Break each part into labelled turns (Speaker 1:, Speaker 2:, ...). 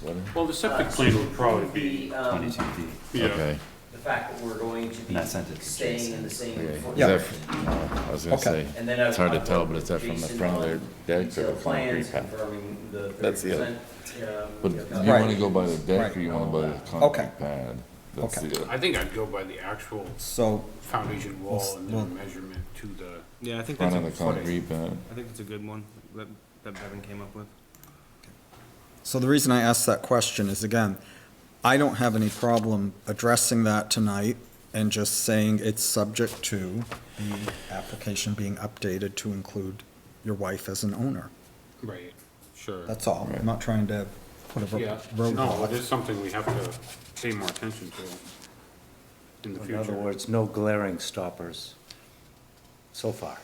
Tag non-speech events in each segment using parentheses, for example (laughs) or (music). Speaker 1: what,
Speaker 2: Well, the septic
Speaker 3: Uh,
Speaker 2: plan would probably be,
Speaker 3: The, um,
Speaker 4: twenty-two feet.
Speaker 2: yeah,
Speaker 1: okay.
Speaker 3: the fact that we're going to
Speaker 4: And that sentence
Speaker 3: be
Speaker 4: is
Speaker 3: staying in the same
Speaker 1: okay.
Speaker 3: footprint.
Speaker 1: Is that f- no, I was gonna
Speaker 5: Okay.
Speaker 1: say,
Speaker 3: And then I.
Speaker 1: it's hard to
Speaker 3: I
Speaker 1: tell,
Speaker 3: worked
Speaker 1: but is that
Speaker 3: with
Speaker 1: from the
Speaker 3: Jason
Speaker 1: front of their
Speaker 3: on
Speaker 1: deck or the
Speaker 3: detailed plans
Speaker 1: concrete pad?
Speaker 3: Confirming the
Speaker 1: That's
Speaker 3: thirty
Speaker 1: the other-
Speaker 3: percent. um,
Speaker 1: But you
Speaker 5: Right.
Speaker 1: wanna go by the deck or you wanna by the
Speaker 5: Okay.
Speaker 1: concrete pad? That's
Speaker 5: Okay.
Speaker 1: the, uh,
Speaker 2: I think I'd go by the actual
Speaker 5: So,
Speaker 2: foundation wall and
Speaker 5: Well,
Speaker 2: then measurement to the,
Speaker 6: Yeah, I think that's
Speaker 1: front
Speaker 6: a
Speaker 1: of the
Speaker 6: footing.
Speaker 1: concrete pad.
Speaker 6: I think it's a good one that, that Bevan came up with.
Speaker 5: so the reason I asked that question is, again, I don't have any problem addressing that tonight and just saying it's subject to the application being updated to include your wife as an owner.
Speaker 2: right, sure.
Speaker 5: That's all. I'm not trying to put a
Speaker 2: Yeah,
Speaker 5: ro-
Speaker 2: no, it is
Speaker 5: roadblock.
Speaker 2: something we have to pay more attention to in the
Speaker 7: In other
Speaker 2: future.
Speaker 7: words, no glaring stoppers so (laughs) far.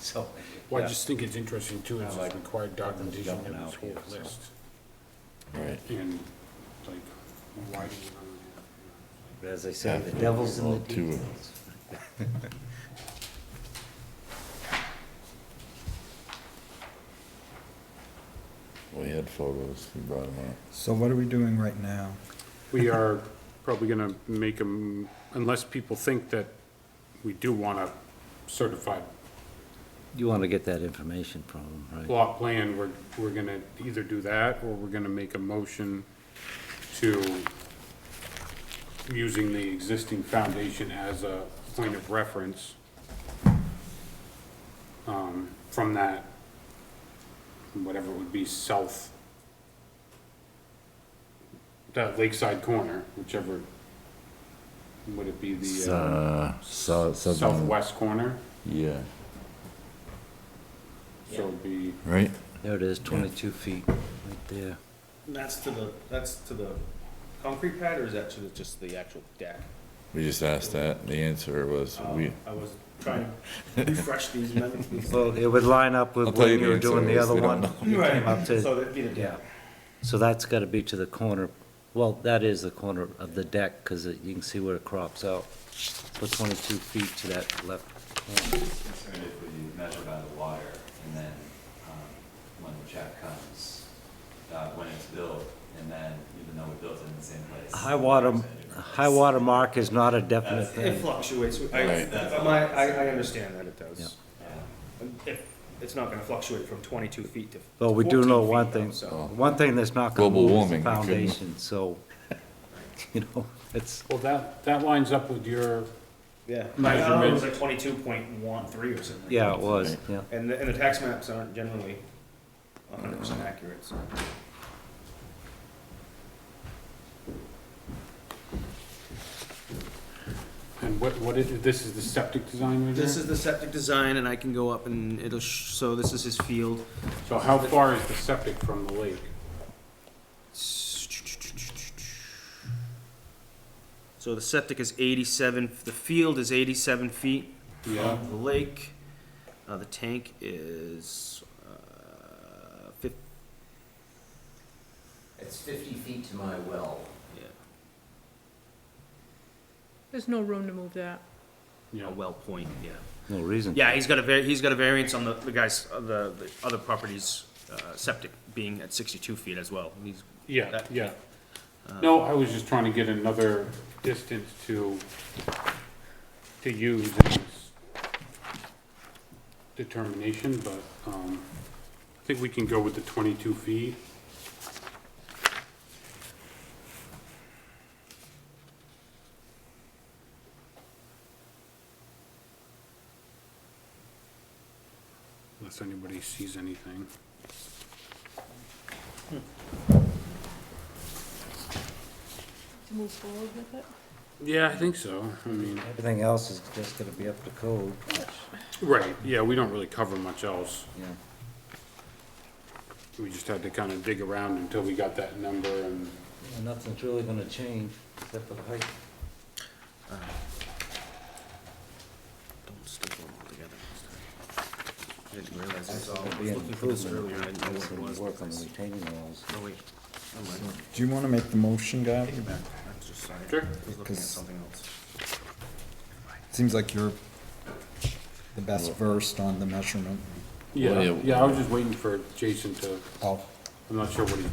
Speaker 7: So,
Speaker 2: Well, I
Speaker 7: yeah.
Speaker 2: just think it's interesting too, is it's required documentation in
Speaker 7: Jumping
Speaker 2: this
Speaker 7: out
Speaker 2: whole
Speaker 7: here, so.
Speaker 2: list.
Speaker 1: Right.
Speaker 2: And like, why do you?
Speaker 7: But as I said, the devil's in the
Speaker 1: Well, two of
Speaker 7: details.
Speaker 1: (laughs) We had photos, we brought them up.
Speaker 5: So what are we doing right now?
Speaker 2: We are probably gonna make them, unless people think that we do want a certified
Speaker 7: You want to get that information from them, right?
Speaker 2: block plan, we're, we're gonna either do that, or we're gonna make a motion to using the existing foundation as a point of reference um, from that, whatever it would be, south, that lakeside corner, whichever, would it be
Speaker 1: S-
Speaker 2: the uh,
Speaker 1: Uh, south, southern,
Speaker 2: southwest corner?
Speaker 1: yeah,
Speaker 2: So it'd be,
Speaker 1: right?
Speaker 7: There it is, 22 feet, right there.
Speaker 8: And that's to the, that's to the concrete pad, or is that to the, just the actual deck?
Speaker 1: We just asked that, the answer was,
Speaker 8: Um,
Speaker 1: we,
Speaker 8: I was trying to refresh these
Speaker 7: (laughs)
Speaker 8: amendments.
Speaker 7: Well, it would line up with
Speaker 1: I'll tell you
Speaker 7: when you
Speaker 1: the
Speaker 7: were doing
Speaker 1: answer
Speaker 7: the
Speaker 1: is
Speaker 7: other
Speaker 1: we don't
Speaker 7: one.
Speaker 1: know.
Speaker 7: You came up to-
Speaker 8: So that'd be the
Speaker 7: Yeah,
Speaker 8: deck.
Speaker 7: so that's got to be to the corner, well, that is the corner of the deck, because you can see where it crops out. Put 22 feet to that left corner.
Speaker 4: Concerned if we measure by the wire and then, um, when the check comes, uh, when it's built, and then even though we built it in the same place.
Speaker 7: High water, high water mark is not a definite
Speaker 8: It
Speaker 7: thing.
Speaker 8: fluctuates, I,
Speaker 1: Right.
Speaker 8: my, I, I understand that it does.
Speaker 7: Yeah.
Speaker 8: Um, It, it's not gonna fluctuate from twenty-two feet to.
Speaker 7: But we do
Speaker 8: 14
Speaker 7: know
Speaker 8: feet,
Speaker 7: one
Speaker 8: though,
Speaker 7: thing, Oh.
Speaker 8: So,
Speaker 7: one thing that's not going to
Speaker 1: Global
Speaker 7: move
Speaker 1: warming,
Speaker 7: is the
Speaker 1: you couldn't-
Speaker 7: foundation, so, (laughs) you know, it's,
Speaker 2: well, that, that lines up with your,
Speaker 8: yeah.
Speaker 2: Measurement.
Speaker 8: I thought it was like twenty-two point one three or something.
Speaker 7: yeah, it was, yeah.
Speaker 8: And, the- and the tax maps aren't generally hundred percent accurate, so.
Speaker 2: and what, what is, this is the septic design right here?
Speaker 6: This is the septic design and I can go up and it'll, sh- so this is his field.
Speaker 2: So how far is the septic from the lake?
Speaker 6: So the septic is eighty-seven, the field is eighty-seven feet
Speaker 2: Yeah.
Speaker 6: from the lake. Uh, the tank is, uh, fif-
Speaker 3: It's fifty feet to my well.
Speaker 6: yeah,
Speaker 9: There's no room to move that.
Speaker 2: Yeah.
Speaker 6: a well point, yeah.
Speaker 7: No reason.
Speaker 6: Yeah, he's got a var, he's got a variance on the, the guy's, uh, the, the other property's, uh, septic being at sixty-two feet as well. He's,
Speaker 2: Yeah,
Speaker 6: That-
Speaker 2: yeah. No, I was just trying to get another distance to, to use in this determination, but, um, I think we can go with the twenty-two feet. Unless anybody sees anything.
Speaker 9: To move forward with it?
Speaker 2: Yeah, I think so. I mean.
Speaker 7: Everything else is just going to be up to code,
Speaker 2: Right, yeah, we don't really cover much else.
Speaker 7: yeah.
Speaker 2: We just had to kind of dig around until we got that number and,
Speaker 7: Yeah, Nothing's really going to change except for the height.
Speaker 6: don't stick them all together. I didn't realize
Speaker 7: That's
Speaker 6: this all,
Speaker 7: going
Speaker 6: I
Speaker 7: to
Speaker 6: was
Speaker 7: be an
Speaker 6: looking for this
Speaker 7: improvement.
Speaker 6: earlier, I didn't know what
Speaker 7: That's going
Speaker 6: it was.
Speaker 7: to work on the retaining walls.
Speaker 6: No, wait, never mind.
Speaker 5: Do you want to make the motion, Gav?
Speaker 6: Take it back. I was just, sorry.
Speaker 2: Sure.
Speaker 6: I was looking at
Speaker 5: Because-
Speaker 6: something else.
Speaker 5: Seems like you're the best versed on the measurement.
Speaker 2: yeah,
Speaker 1: yeah.
Speaker 2: yeah, I was just waiting for Jason to,
Speaker 5: Oh.
Speaker 2: I'm not sure what he's